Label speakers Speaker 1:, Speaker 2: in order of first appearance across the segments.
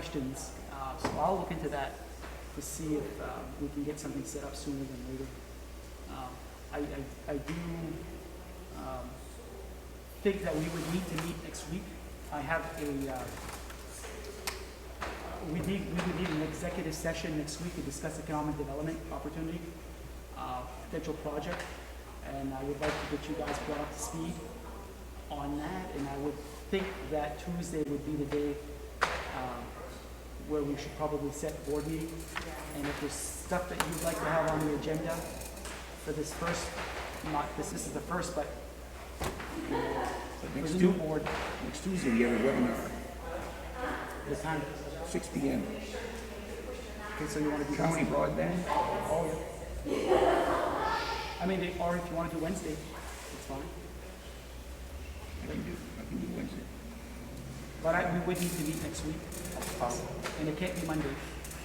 Speaker 1: questions, uh, so I'll look into that to see if um, we can get something set up sooner than later. Um, I, I, I do um, think that we would need to meet next week. I have a, uh, we need, we would need an executive session next week to discuss economic development opportunity, uh, potential project, and I would like to get you guys brought up to speed on that, and I would think that Tuesday would be the day um, where we should probably set board meeting. And if there's stuff that you'd like to have on the agenda for this first, not, this this is the first, but
Speaker 2: But
Speaker 1: for
Speaker 2: next
Speaker 1: the new
Speaker 2: Tuesday,
Speaker 1: board,
Speaker 2: next Tuesday, we have a webinar,
Speaker 1: the time.
Speaker 2: six P M.
Speaker 1: Okay, so you want to do
Speaker 2: County broadband?
Speaker 1: Oh, yeah. I mean, they- or if you want to do Wednesday, it's fine.
Speaker 2: I can do, I can do Wednesday.
Speaker 1: But I, we would need to meet next week. And it can't be Monday.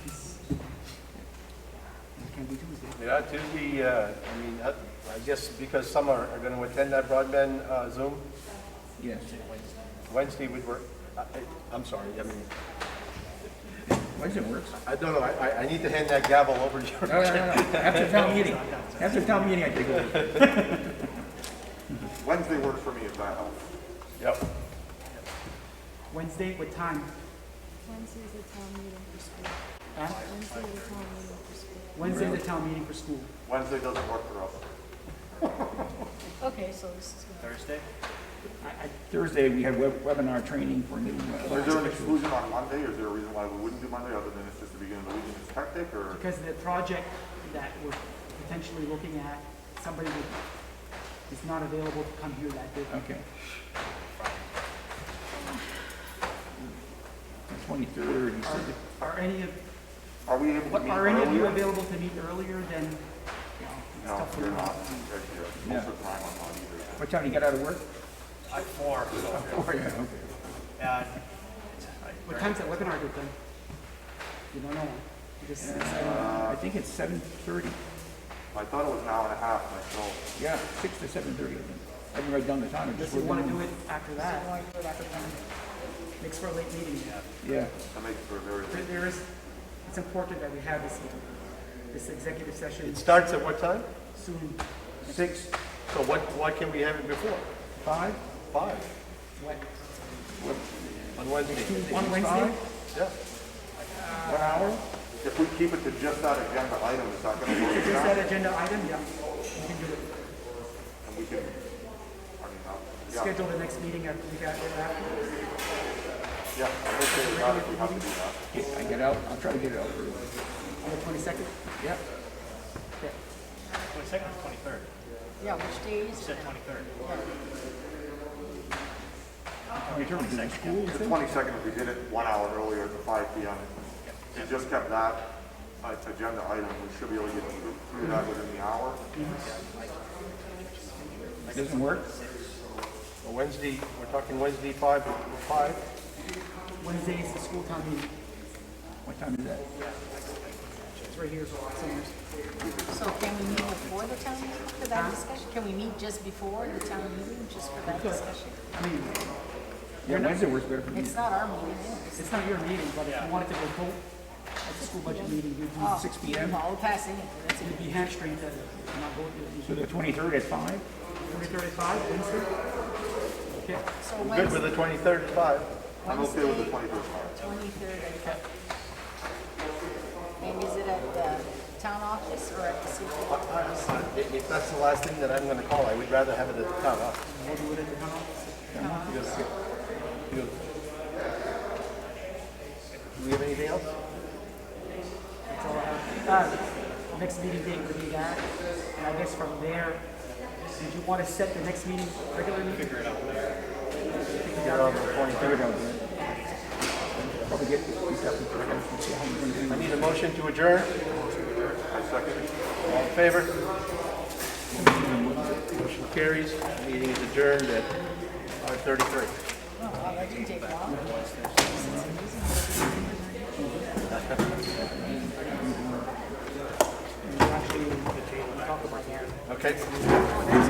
Speaker 1: It's- It can be Tuesday.
Speaker 3: Yeah, Tuesday, uh, I mean, uh, I guess because some are, are gonna attend that broadband, uh, Zoom,
Speaker 2: Yes.
Speaker 3: Wednesday would work. I, I- I'm sorry, I mean,
Speaker 2: Wednesday works.
Speaker 3: I don't know, I, I- I need to hand that gavel over to
Speaker 2: No,
Speaker 3: you.
Speaker 2: no, no, no. After town meeting, after town meeting, I take over.
Speaker 4: Wednesday worked for me if that helps.
Speaker 3: Yep.
Speaker 1: Wednesday, what time?
Speaker 5: Wednesday's the town meeting for school.
Speaker 1: Huh?
Speaker 5: Wednesday's the town meeting for school.
Speaker 1: Wednesday's the town meeting for school.
Speaker 4: Wednesday doesn't work for us.
Speaker 5: Okay, so this is.
Speaker 3: Thursday?
Speaker 1: I, I,
Speaker 2: Thursday, we have web- webinar training for new. uh,
Speaker 4: Is there an exclusion on Monday, or is there a reason why we wouldn't do Monday, other than it's just the beginning of the week and it's hectic, or?
Speaker 1: because the project that we're potentially looking at, somebody that is not available to come here that day.
Speaker 2: Okay. Twenty-third, you said,
Speaker 1: Are, are any of,
Speaker 4: Are we able to
Speaker 1: what,
Speaker 4: meet
Speaker 1: are any of you
Speaker 4: earlier?
Speaker 1: available to meet earlier than, you know, it's
Speaker 4: No,
Speaker 1: tough for
Speaker 4: you're
Speaker 1: me.
Speaker 4: not. Okay, yeah. Most of the time I'm not either.
Speaker 2: what time do you get out of work?
Speaker 6: At four, so,
Speaker 2: Four, yeah, okay.
Speaker 6: uh,
Speaker 1: What time's that webinar good then? You don't know. You just-
Speaker 2: Uh, I think it's seven thirty.
Speaker 4: I thought it was an hour and a half myself.
Speaker 2: Yeah, six to seven thirty, I think. I haven't read down the time. I
Speaker 1: Unless
Speaker 2: just
Speaker 1: you
Speaker 2: wrote
Speaker 1: wanna
Speaker 2: down-
Speaker 1: do it after that. Makes for a late meeting.
Speaker 2: Yeah.
Speaker 4: That makes for a very
Speaker 1: There- There is, it's important that we have this, this executive session
Speaker 3: It starts at what time?
Speaker 1: soon.
Speaker 3: Six. So what, why can we have it before?
Speaker 2: Five?
Speaker 3: Five,
Speaker 1: What,
Speaker 3: on Wednesday,
Speaker 1: on Wednesday?
Speaker 3: yeah.
Speaker 2: One hour?
Speaker 4: If we keep it to just that agenda item, it's not gonna work.
Speaker 1: Is
Speaker 4: It's
Speaker 1: that
Speaker 4: not-
Speaker 1: agenda item? Yeah, we can do it.
Speaker 4: And we can, I mean, uh, yeah,
Speaker 1: Schedule the next meeting at, we got, after.
Speaker 4: yeah, I'm okay with that if we have to do that.
Speaker 2: I get out, I'll try to get it out early.
Speaker 1: on the twenty-second?
Speaker 2: Yep.
Speaker 6: twenty-second or twenty-third?
Speaker 5: Yeah, which day
Speaker 6: You
Speaker 5: is
Speaker 6: said twenty-third.
Speaker 2: In terms of school,
Speaker 4: The twenty-second, if we did it one hour earlier to five P M. If we just kept that uh, agenda item, we should be able to get through through that within the hour.
Speaker 2: it doesn't work?
Speaker 3: Well, Wednesday, we're talking Wednesday, five, five.
Speaker 1: Wednesday is the school town meeting.
Speaker 2: What time is that?
Speaker 1: It's right here. somewhere.
Speaker 5: So can we meet before the town meeting for that discussion? Can we meet just before the town meeting, just for that discussion?
Speaker 1: I mean,
Speaker 2: Yeah, Wednesday works better for me.
Speaker 5: It's not our meeting, it's
Speaker 1: it's not your meeting, but if you wanted to go vote at the school budget meeting, we'd be,
Speaker 2: Six P M?
Speaker 5: all passing it. That's
Speaker 1: we'd be hamstringed to not vote.
Speaker 2: So the twenty-third at five?
Speaker 1: Three thirty-five, Wednesday? Okay,
Speaker 5: it. So
Speaker 3: Good with
Speaker 5: Wednesday,
Speaker 3: the twenty-third at five.
Speaker 4: I'm okay with the
Speaker 5: Wednesday,
Speaker 4: twenty-first hour.
Speaker 5: twenty-third. And is it at the town office or at the city?
Speaker 3: I- I- If if that's the last thing that I'm gonna call, I would rather have it at the town office.
Speaker 1: we'll do it at the town office.
Speaker 3: Do we have anything else?
Speaker 1: That's all I have. Uh, Next meeting date would be that, and I guess from there, did you want to set the next meeting regularly? Figure it out.
Speaker 2: There we go. Probably get these up and put it up and see how many we're
Speaker 3: I
Speaker 2: gonna do.
Speaker 3: need a motion to adjourn.
Speaker 4: I second it.
Speaker 3: All in favor? Motion carries. Meeting is adjourned at 5:33.
Speaker 5: Oh, wow, that didn't take long.
Speaker 1: Actually, talk about that.
Speaker 3: Okay?